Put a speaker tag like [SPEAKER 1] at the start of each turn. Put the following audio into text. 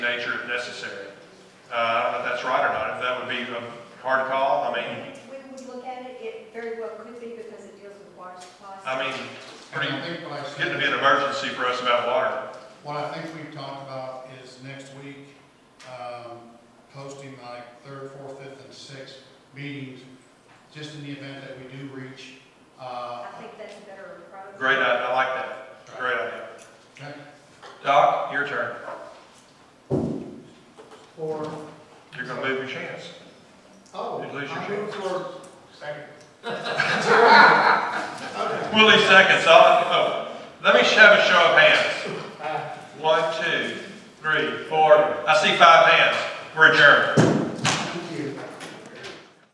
[SPEAKER 1] nature if necessary. Uh, I don't know if that's right or not, if that would be a hard call, I mean,
[SPEAKER 2] We would look at it, it very well could be because it deals with water supplies.
[SPEAKER 1] I mean,
[SPEAKER 3] And
[SPEAKER 1] pretty,
[SPEAKER 3] I think what I
[SPEAKER 1] it's getting to be
[SPEAKER 3] said,
[SPEAKER 1] an emergency for us about water.
[SPEAKER 3] what I think we've talked about is next week, um, posting like third, fourth, fifth, and sixth meetings, just in the event that we do reach, uh,
[SPEAKER 2] I think that's a better approach.
[SPEAKER 1] Great, idea. I like that, great idea.
[SPEAKER 3] okay?
[SPEAKER 1] Doc, your turn,
[SPEAKER 4] Or,
[SPEAKER 1] you're gonna move your chance.
[SPEAKER 4] oh,
[SPEAKER 1] You lose your
[SPEAKER 4] I move for. Second.
[SPEAKER 1] Willie seconds, all, oh, let me have a show of hands. One, two, three, four, I see five hands, we're adjourned.